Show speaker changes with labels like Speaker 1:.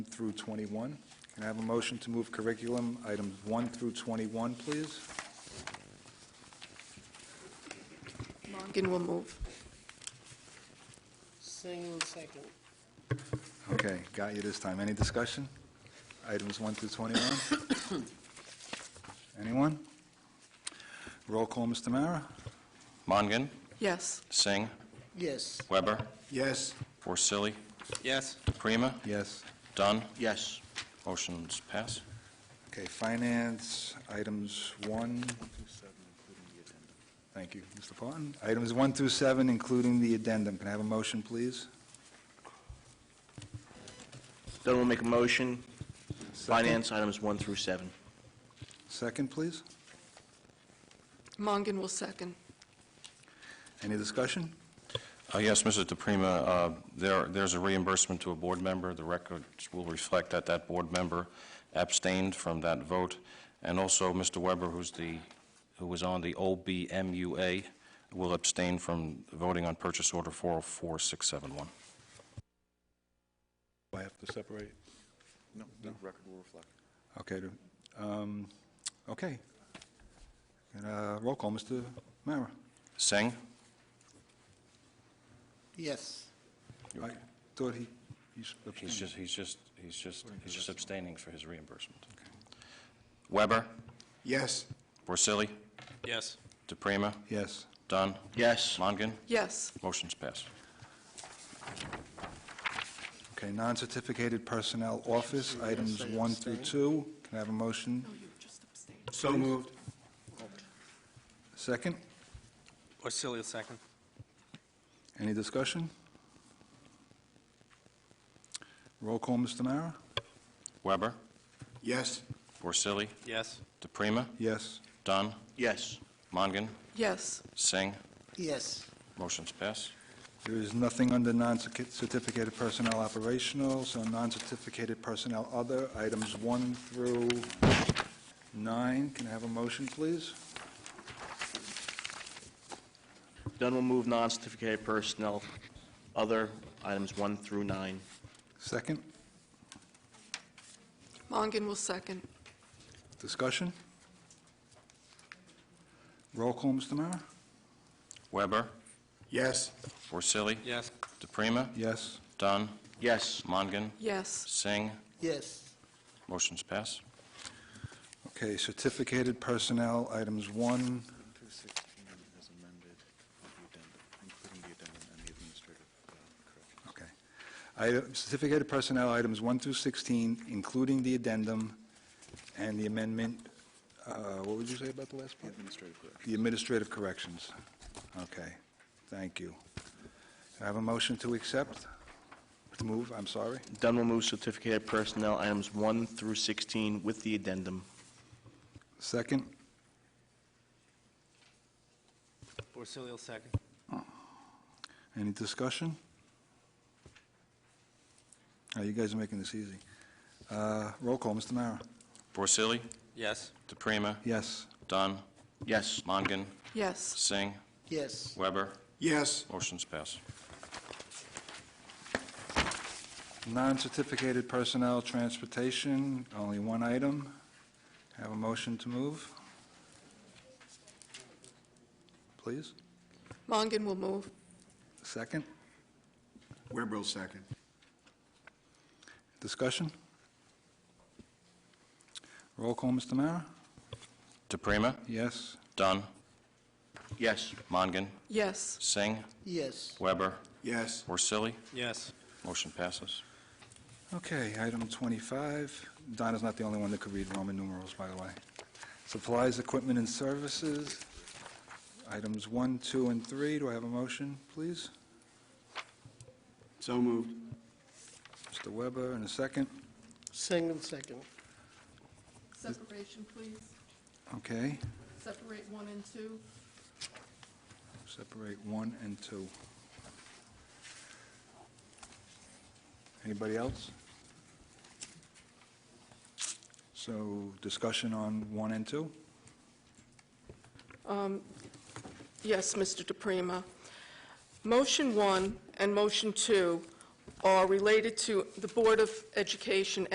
Speaker 1: through 21. Can I have a motion to move curriculum items 1 through 21, please?
Speaker 2: Mongan will move.
Speaker 3: Single second.
Speaker 1: Okay, got you this time. Any discussion? Items 1 through 21? Anyone? Roll call, Mr. Mara?
Speaker 4: Mongan,
Speaker 2: Yes.
Speaker 4: Singh,
Speaker 3: Yes.
Speaker 4: Weber,
Speaker 1: Yes.
Speaker 4: Porcelli,
Speaker 5: Yes.
Speaker 4: Prima,
Speaker 1: Yes.
Speaker 4: Dunn.
Speaker 5: Yes.
Speaker 4: Motion's pass.
Speaker 1: Okay, finance, items 1 Thank you, Mr. Parton. Items 1 through 7, including the addendum. Can I have a motion, please?
Speaker 5: Dunn will make a motion. Finance items one through seven.
Speaker 1: Second, please.
Speaker 2: Mongan will second.
Speaker 1: Any discussion?
Speaker 4: Uh, Yes, Mrs. DePrima, uh, there- there's a reimbursement to a board member. The records will reflect that that board member abstained from that vote. And also, Mr. Weber, who's the, who was on the OBMUA, will abstain from voting on purchase order 404671.
Speaker 1: Do I have to separate? No, the record will reflect. Okay, do- um, okay. And, uh, roll call, Mr. Mara.
Speaker 4: Singh?
Speaker 3: Yes.
Speaker 1: I thought he, he's
Speaker 4: He's
Speaker 1: abstaining.
Speaker 4: just, he's just, he's just, he's just abstaining for his reimbursement. Weber,
Speaker 1: Yes.
Speaker 4: Porcelli,
Speaker 5: Yes.
Speaker 4: DePrima,
Speaker 1: Yes.
Speaker 4: Dunn,
Speaker 5: Yes.
Speaker 4: Mongan,
Speaker 2: Yes.
Speaker 4: motion's passed.
Speaker 1: Okay, non-certificated personnel office, items one through two. Can I have a motion?
Speaker 2: No, you Oh, just abstained.
Speaker 5: So moved.
Speaker 1: Second?
Speaker 5: Porcelli, second.
Speaker 1: Any discussion? Roll call, Mr. Mara?
Speaker 4: Weber,
Speaker 1: Yes.
Speaker 4: Porcelli,
Speaker 5: Yes.
Speaker 4: DePrima,
Speaker 1: Yes.
Speaker 4: Dunn,
Speaker 5: Yes.
Speaker 4: Mongan,
Speaker 2: Yes.
Speaker 4: Singh,
Speaker 3: Yes.
Speaker 4: motion's passed.
Speaker 1: There is nothing under non-certificated personnel operational, so non-certificated personnel other, items one through nine. Can I have a motion, please?
Speaker 5: Dunn will move non-certificated personnel, other items one through nine.
Speaker 1: Second,
Speaker 2: Mongan will second.
Speaker 1: discussion? Roll call, Mr. Mara?
Speaker 4: Weber,
Speaker 1: Yes.
Speaker 4: Porcelli,
Speaker 5: Yes.
Speaker 4: DePrima,
Speaker 1: Yes.
Speaker 4: Dunn,
Speaker 5: Yes.
Speaker 4: Mongan,
Speaker 2: Yes.
Speaker 4: Singh,
Speaker 3: Yes.
Speaker 4: motion's passed.
Speaker 1: Okay, certificated personnel, items one,
Speaker 6: through 16 as amended with the addendum, including the addendum and the administrative uh, correction.
Speaker 1: okay. Item- Certificated personnel, items one through 16, including the addendum and the amendment, uh, what would you say about the last part?
Speaker 6: Administrative correction.
Speaker 1: The administrative corrections. Okay, thank you. I have a motion to accept, to move, I'm sorry.
Speaker 5: Dunn will move certificated personnel, items one through 16, with the addendum.
Speaker 1: Second,
Speaker 7: Porcelli second.
Speaker 1: any discussion? Oh, You guys are making this easy. Uh, Roll call, Mr. Mara.
Speaker 4: Porcelli,
Speaker 7: Yes.
Speaker 4: DePrima,
Speaker 1: Yes.
Speaker 4: Dunn,
Speaker 5: Yes.
Speaker 4: Mongan,
Speaker 2: Yes.
Speaker 4: Singh,
Speaker 3: Yes.
Speaker 4: Weber,
Speaker 1: Yes.
Speaker 4: motion's passed.
Speaker 1: Non-certificated personnel, transportation, only one item. Have a motion to move? Please,
Speaker 2: Mongan will move.
Speaker 1: second,
Speaker 6: Weber, second.
Speaker 1: discussion? Roll call, Mr. Mara?
Speaker 4: DePrima,
Speaker 1: Yes.
Speaker 4: Dunn,
Speaker 5: Yes.
Speaker 4: Mongan,
Speaker 2: Yes.
Speaker 4: Singh,
Speaker 3: Yes.
Speaker 4: Weber,
Speaker 6: Yes.
Speaker 4: Porcelli,
Speaker 7: Yes.
Speaker 4: motion passes.
Speaker 1: Okay, item 25. Donna's not the only one that could read Roman numerals, by the way. Supplies, equipment, and services, items 1, 2, and 3. Do I have a motion, please?
Speaker 6: So moved.
Speaker 1: Mr. Weber, in a second.
Speaker 3: Single second.
Speaker 2: Separation, please.
Speaker 1: Okay,
Speaker 2: Separate one and two.
Speaker 1: separate 1 and 2. Anybody else? So discussion on 1 and 2?
Speaker 2: Yes, Mr. DePrima. Motion one and motion two are related to the Board of Education